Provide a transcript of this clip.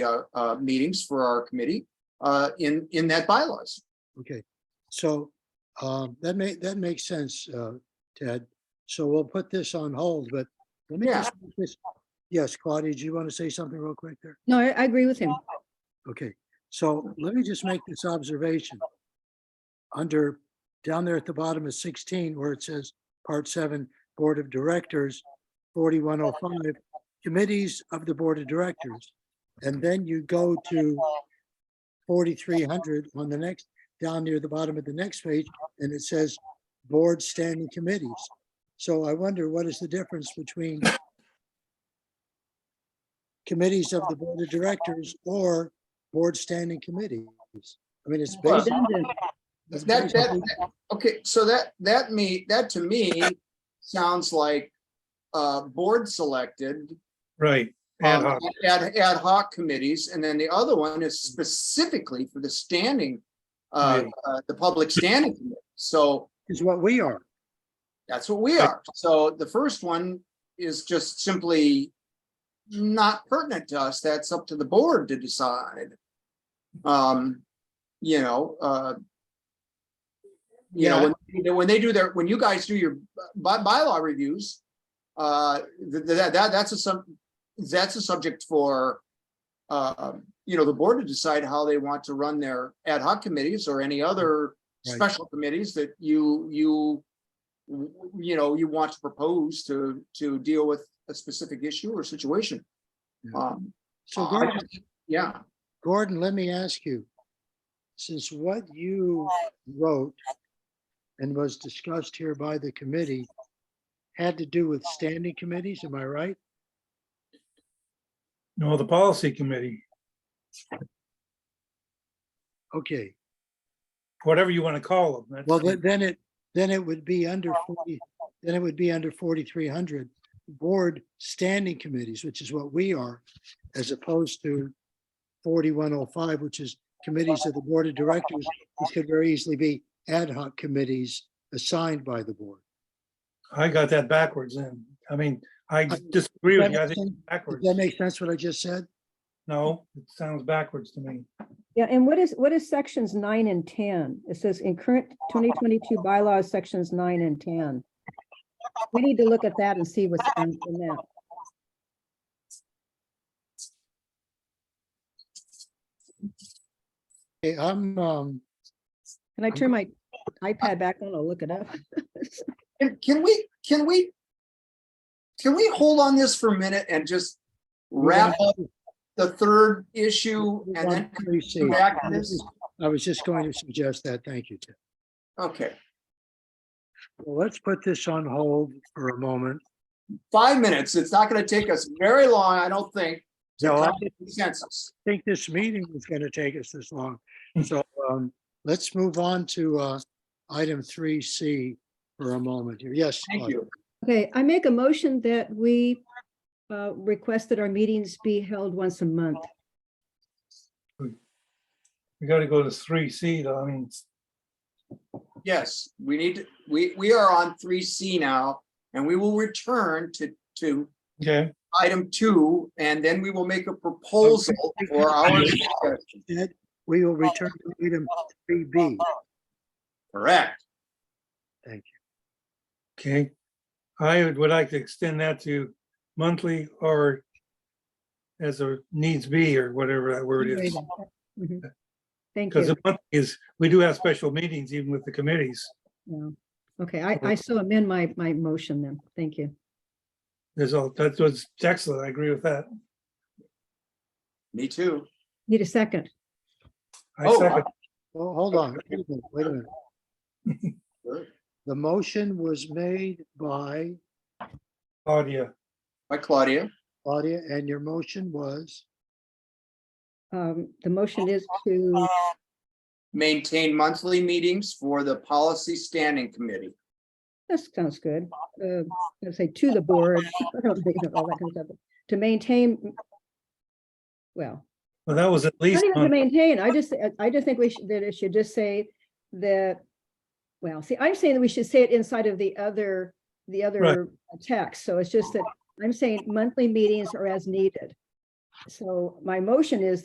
uh, uh, meetings for our committee, uh, in, in that bylaws. Okay, so um, that may, that makes sense, uh, Ted. So we'll put this on hold, but let me Yeah. just, make this- yes, Claudia, do you want to say something real quick there? No, I, I agree with him. Okay, so let me just make this observation. Under, down there at the bottom of sixteen, where it says Part Seven, Board of Directors, forty-one oh five, Committees of the Board of Directors. And then you go to forty-three hundred on the next, down near the bottom of the next page, and it says Board Standing Committees. So I wonder what is the difference between committees of the Board of Directors or board standing committees. I mean, it's Well, based, Redundant. it's That, that, based- that- okay, so that, that me, that to me sounds like, uh, board selected, Right. ad um, hoc. ad, ad hoc committees, and then the other one is specifically for the standing, uh, Right. uh, the public standing committee. So is what we are. that's what we are. So the first one is just simply not pertinent to us. That's up to the board to decide. Um, you know, uh, you know, when, when they do their, when you guys do your by, bylaw reviews, uh, th- th- that, that, that's a sub, that's a subject for, uh, you know, the board to decide how they want to run their ad hoc committees or any other Right. special committees that you, you, w- you know, you want to propose to, to deal with a specific issue or situation. Yeah. Um, So I- Gordon, yeah, Gordon, let me ask you, since what you wrote and was discussed here by the committee had to do with standing committees, am I right? uh, No, the policy committee, Okay, whatever you want to call them. well, that's- then then it, then it would be under forty, then it would be under forty-three hundred board standing committees, which is what we are, as opposed to forty-one oh five, which is committees of the board of directors, which could very easily be ad hoc committees assigned by the board. I got that backwards then. I mean, I disagree with you. I Does think it's backwards. that make sense what I just said? No, it sounds backwards to me. Yeah, and what is, what is sections nine and ten? It says in current twenty twenty-two bylaws, sections nine and ten. We need to look at that and see what's in in that. Okay, I'm, um, Can I turn my iPad back on? I'll look it up. Can, can we, can we? Can we hold on this for a minute and just wrap up the third issue and then let me see. come back to this? I was just going to suggest that. Thank you, Tim. Okay, Well, let's put this on hold for a moment. five minutes. It's not gonna take us very long, I don't think. to No, I come to Consensus. think this meeting is going to take us this long. Hmm. So, um, let's move on to, uh, item three C for a moment here. Yes. uh, Thank Claudia. you. Okay, I make a motion that we uh, request that our meetings be held once a month. We got to go to three C though. I mean, Yes, we need, to- we, we are on three C now, and we will return to, to okay, item two, and then we will make a proposal for our. Ed, We will return to item three B. Correct. okay. I would like to extend that to monthly or as a needs be or whatever that word is. Mhm. Thank Because you. the month is, we do have special meetings even with the committees. Yeah. Okay, I, I so amend my, my motion then. Thank you. There's all, that was excellent. I agree with that. Me too. Need a second. I Oh, second, Well, hold on. Wait a minute. Wait a minute. The motion was made by Claudia. By Claudia. Claudia and your motion was? Um, the motion is to, Maintain monthly meetings for the policy standing committee. that sounds good. Uh, I'd say to the board. I don't think that all that comes up. To maintain. Well, Well, that was at not least. even to month- maintain. I just, I- I just think we should, that it should just say that. Well, see, I'm saying that we should say it inside of the other, the other text. So it's just that I'm saying monthly meetings are as needed. So my motion is